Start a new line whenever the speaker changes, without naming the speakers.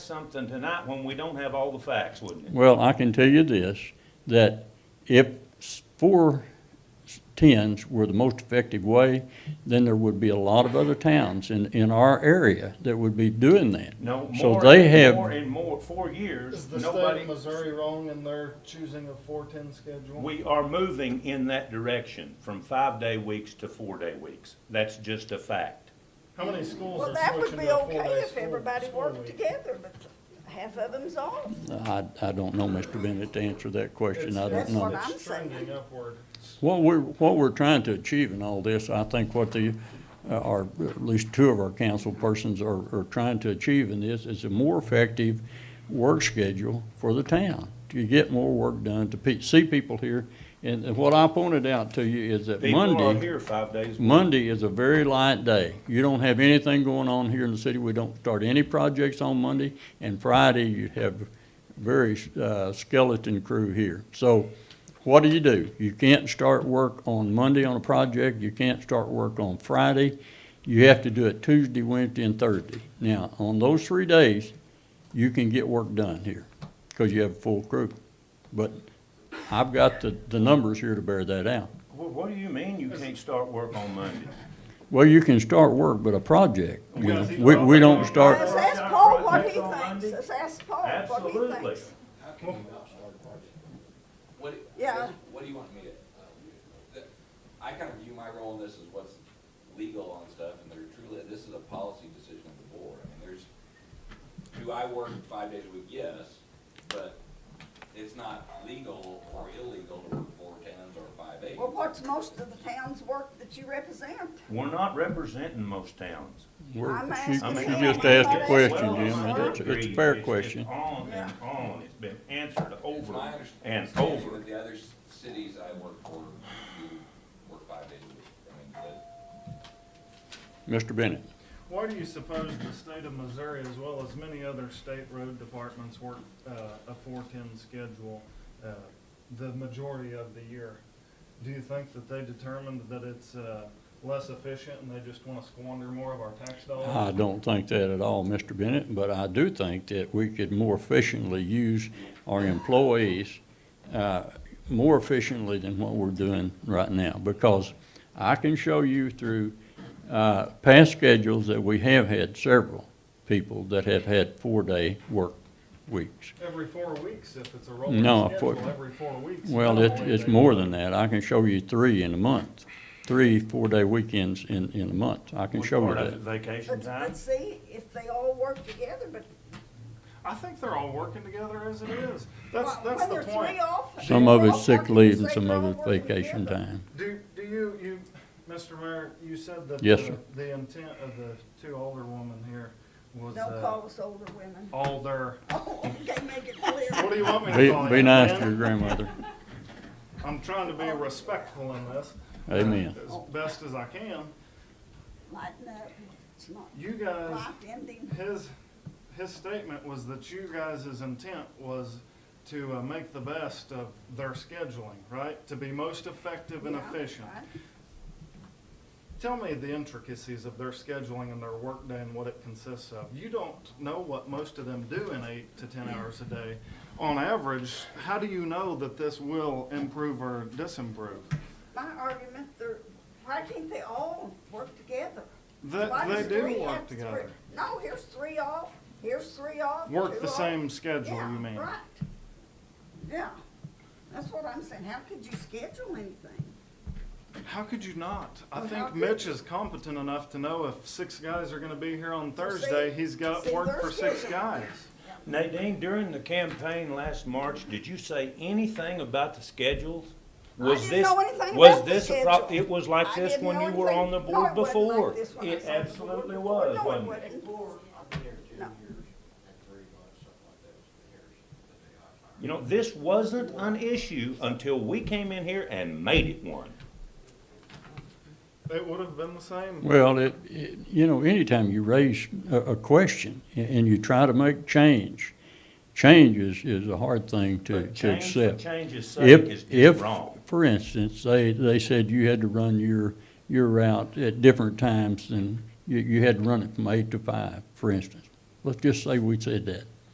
something tonight when we don't have all the facts, wouldn't it?
Well, I can tell you this, that if s- four s- tens were the most effective way, then there would be a lot of other towns in, in our area that would be doing that.
No,
So
more
they
and
have-
more and more, four years,
Is the state
nobody,
of Missouri wrong in their choosing a four-ten schedule?
we are moving in that direction from five-day weeks to four-day weeks. That's just a fact.
How many schools
Well,
are
that would
switching
be
to a
okay
four-day
if
school,
everybody
school
worked
week?
together, but half of them's off.
I, I don't know, Mr. Bennett, to answer that question, I don't
That's what
know.
I'm
It's trending
saying.
upward.
What we're, what we're trying to achieve in all this, I think what the, uh, or at least two of our council persons are, are trying to achieve in this, is a more effective work schedule for the town, to get more work done, to pe- see people here. And and what I pointed out to you is that
People are
Monday,
here five days. a week.
Monday is a very light day. You don't have anything going on here in the city, we don't start any projects on Monday, and Friday, you have very uh, skeleton crew here. So what do you do? You can't start work on Monday on a project, you can't start work on Friday. You have to do it Tuesday, Wednesday, and Thursday. Now, on those three days, you can get work done here, because you have a full crew. But I've got the, the numbers here to bear that out.
Well, what do you mean you can't start work on Monday?
Well, you can start work, but a project, you know, we, we don't
Let's
start,
ask Paul what he thinks. Let's ask Paul what he
Absolutely.
thinks.
How can you not start a party? What, do-
Yeah.
what do you want me to, uh, the- I kind of view my role in this as what's legal on stuff, and they're truly, this is a policy decision of the board. I mean, there's, do I work five days a week? Yes, but it's not legal or illegal to work four tens or five eights.
Well, what's most of the town's work that you represent?
We're not representing most towns.
we're-
I'm
she, she
asking
I mean,
just
him.
asked a question,
Well,
Jim,
I
and it's, it's a
agree.
fair
just
question.
on and on, it's been answered
It's
over
my
and
understanding
over.
that the other s- cities I work for do work five days a week. I mean, but
Mr. Bennett,
Why do you suppose the state of Missouri, as well as many other state road departments, work uh, a four-ten schedule uh, the majority of the year? Do you think that they determined that it's uh, less efficient and they just want to squander more of our tax dollars?
I don't think that at all, Mr. Bennett, but I do think that we could more efficiently use our employees, uh, more efficiently than what we're doing right now, because I can show you through, uh, past schedules that we have had several people that have had four-day work weeks.
Every four weeks, if it's a rolling
No, four-
schedule, every four weeks.
Well,
not
it's,
only
it's
they-
more than that. I can show you three in a month, three four-day weekends in, in a month. I can
What
show you
part of
that.
it, Vacation
But,
time?
but see, if they all work together, but
I think they're all working together as it is. That's,
wh-
that's
when
the
there's three
point.
off. and
Some
they're
of
all
it's sick
working,
leave and
say
some
they're
of
all
it's
working
vacation
together.
time.
Do, do you, you, Mr. Mayor, you said that
Yes,
the-
sir.
the intent of the two older women here was
Don't
uh,
call us older women.
older.
Oh, okay, make it clear.
What do you want me to
Be,
call
be
you,
nice to
man?
your grandmother.
I'm trying to be
Oh.
respectful in this. uh,
Amen.
As best as I can.
Lighten up. It's not
You guys,
life ending.
his, his statement was that you guys' intent was to uh, make the best of their scheduling, right? To be most effective and
Yeah,
efficient.
right.
Tell me the intricacies of their scheduling and their workday and what it consists of. You don't know what most of them do in eight to ten hours a day. On average, how do you know that this will improve or disimprove?
My argument, they're, why can't they all work together?
That
Why
they
does
do
three
work
have three-
together.
No, here's three off, here's three off. two
Work the
off.
same schedule,
Yeah,
you mean?
Right. Yeah, that's what I'm saying. How could you schedule anything?
How could you not? I
Well, how
think
could-
Mitch is competent enough to know if six guys are gonna be here on
Well, see-
Thursday, he's got
see,
work
their
for six
schedule.
guys.
Nadine, during the campaign last March, did you say anything about the schedules? Was
didn't
this
know anything
was
about the
this a pro-
schedule.
It was like
I
this
didn't
when
know
you were on the
anything. No,
board
it wasn't like
before.
this when I
It
was on the board
absolutely
before.
was,
No,
wasn't
it
it?
wasn't. No.
You know, this wasn't an issue until we came in here and made it one.
It would have been the same.
Well, it, it, you know, anytime you raise a, a question a- and you try to make change, change is, is a hard thing to,
But
to
change for
accept.
change's sake is
If,
just
if,
wrong.
for instance, they, they said you had to run your, your route at different times and you, you had to run it from eight to five, for instance. Let's just say we said that.